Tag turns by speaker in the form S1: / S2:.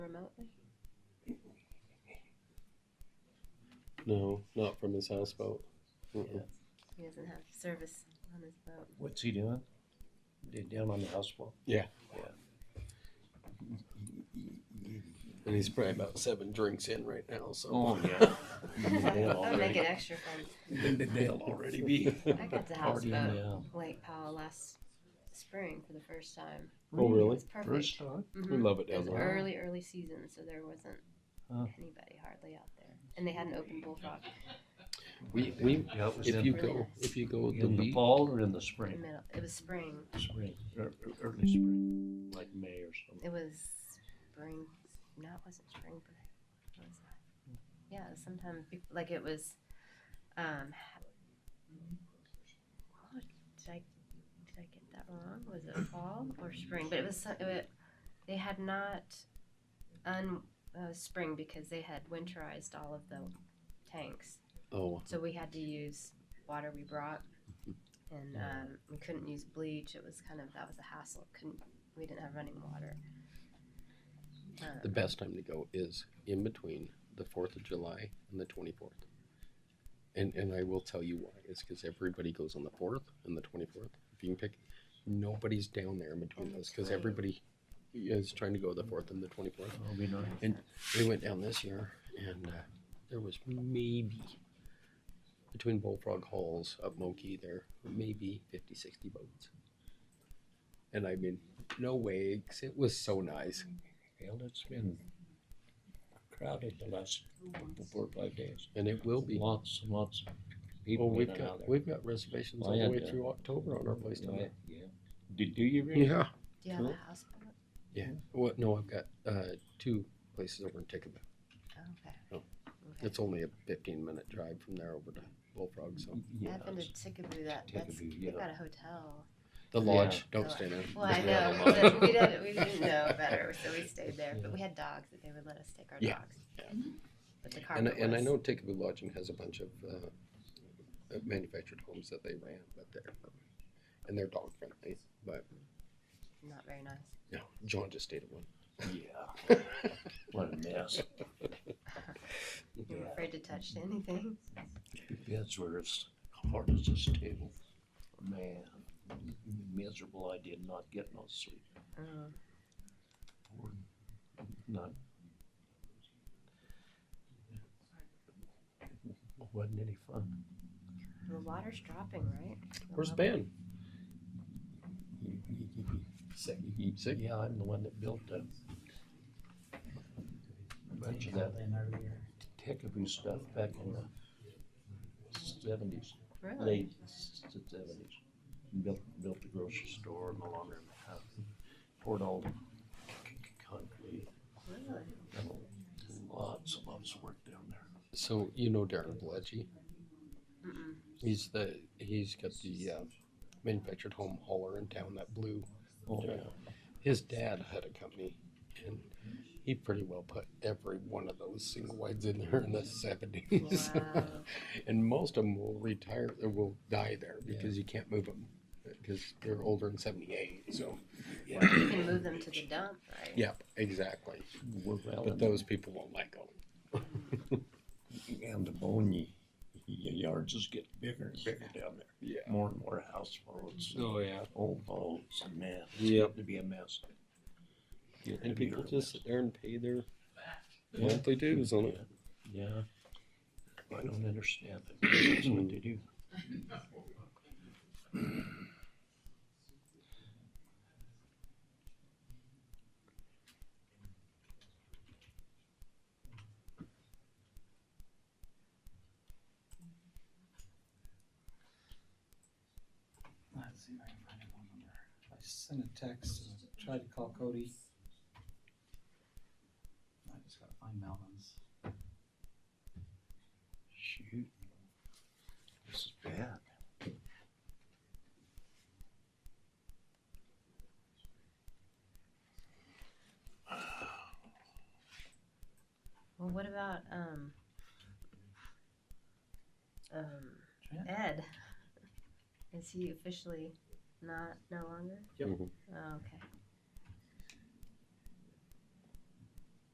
S1: not?
S2: No, not from his houseboat. Mm-mm.
S1: He doesn't have service on his boat.
S3: What's he doing? They Down on the houseboat?
S2: Yeah.
S3: Yeah.
S2: And he's probably about seven drinks in right now, so
S3: Oh, yeah.
S1: That'll make it extra fun.
S3: They'll already be.
S1: I got the houseboat
S3: uh,
S1: Lake Powell last spring for the first time.
S2: Oh, really?
S1: It's perfect.
S3: First time?
S2: we
S1: Mhm.
S2: love it
S1: It
S2: down
S1: was
S2: there.
S1: early, early season, so there wasn't
S3: Huh.
S1: anybody hardly out there. And they had an open bullfrog
S2: We, we,
S3: Yeah, it was
S2: if you
S3: in,
S2: go, if you go to
S3: in the
S2: the
S3: fall or in the
S1: in the
S3: spring?
S1: middle. It was spring.
S3: Spring, ear- ear- Er, early spring, like May or something.
S1: It was spring. No, it wasn't spring break. What was that? Yeah, it was sometime be- like it was. Um, ha- oh, did I did I get that wrong? Was it fall or spring? But it was. some- It, they had not un uh, spring because they had winterized all of the tanks,
S2: oh,
S1: so we had to use water we brought. And um, we couldn't use bleach. It was kind of that was a hassle. Couldn't we didn't have running water. Uh,
S2: the best time to go is in between the Fourth of July and the twenty fourth. And and I will tell you why. It's because everybody goes on the fourth and the twenty fourth. If you can pick, nobody's down there in between those because everybody is trying to go the fourth and the twenty fourth.
S3: It'll be nice.
S2: And we went down this year, and uh, there was maybe between Bullfrog Halls up Moki, there maybe 50, 60 boats. And I mean, no way, 'cause it was so nice.
S3: Well, it's been crowded the last four or five days.
S2: And it will be.
S3: Lots and lots of
S2: Well,
S3: people. in
S2: we've
S3: and out
S2: got
S3: of
S2: we've got reservations
S3: I
S2: all the
S3: had,
S2: way
S3: uh,
S2: through October on our place down
S3: there.
S2: there.
S3: Yeah. Do, do you really?
S2: Yeah.
S1: Do you have
S3: Cool.
S1: a houseboat?
S2: Yeah. Well, no, I've got uh, two places over in Tickaba.
S1: Oh, okay.
S2: No.
S1: Okay.
S2: It's only a 15 minute drive from there over to Bullfrog. So
S3: Yeah,
S1: I've been to
S3: it's-
S1: Tickaboo. That that's
S3: Tickaboo,
S1: they've
S3: yeah.
S1: got a hotel.
S2: the
S3: Yeah.
S2: lodge, don't
S1: The
S2: stay there.
S1: Well, I know
S3: Yeah.
S1: we didn't, we didn't we didn't know better, so we stayed there. But we had dogs that they would let us take our
S2: Yeah.
S1: dogs.
S2: Yeah.
S1: But the
S2: And,
S1: carpet
S2: and I
S1: was-
S2: know Tickaboo Lodging has a bunch of uh, uh, manufactured homes that they ran, but they're, and they're dog friendly, but,
S1: not very nice.
S2: no, John just stayed at one.
S3: Yeah. What a mess.
S1: You were afraid to touch anything.
S3: Beds were as hard as this table. Man, miserable. I did not get no sleep.
S1: Um,
S3: None. Wasn't any fun.
S1: the water's dropping, right? The
S2: Where's
S1: level-
S2: Ben? Sick, sick.
S3: Yeah, I'm the one that built the bunch of that Tickaboo stuff back in the seventies,
S1: Really?
S3: late seventies. Built, built the grocery store and the laundry and the house, poured all the c- c- concrete.
S1: Really?
S3: and Lots and lots of work down there.
S2: So you know Darren Bledgy?
S1: Mm-mm.
S2: He's the, he's got the uh, manufactured home hauler in town, that blue.
S3: Oh,
S2: Yeah. His dad had a company and he pretty well put every one of those single wides in there in the seventies.
S1: Wow.
S2: And most of them will retire, or will die there because you can't move them because they're older than 78.
S1: Well,
S2: So,
S1: you can move them to the dump, right?
S2: yep, exactly.
S3: We're well
S2: But
S3: in
S2: those people won't let go.
S3: And the bone y- y- yards is getting bigger and bigger down there.
S2: Yeah.
S3: More and more houseboats, and
S2: Oh, yeah.
S3: old boats, and man, it's
S2: Yep.
S3: getting to be a mess. Getting
S2: And
S3: to be
S2: people
S3: a
S2: just
S3: mess.
S2: sit there and pay their
S3: Yeah.
S2: monthly dues on it.
S3: Yeah. I don't understand it. That's what they do.
S4: Let's see if I can find a phone number. I sent a text and I tried to call Cody. I just gotta find Melvin's.
S3: Shoot. This is bad.
S1: Well, what about um, um,
S4: Trent?
S1: Ed? Is he officially not no longer?
S2: Yep.
S1: Oh, okay.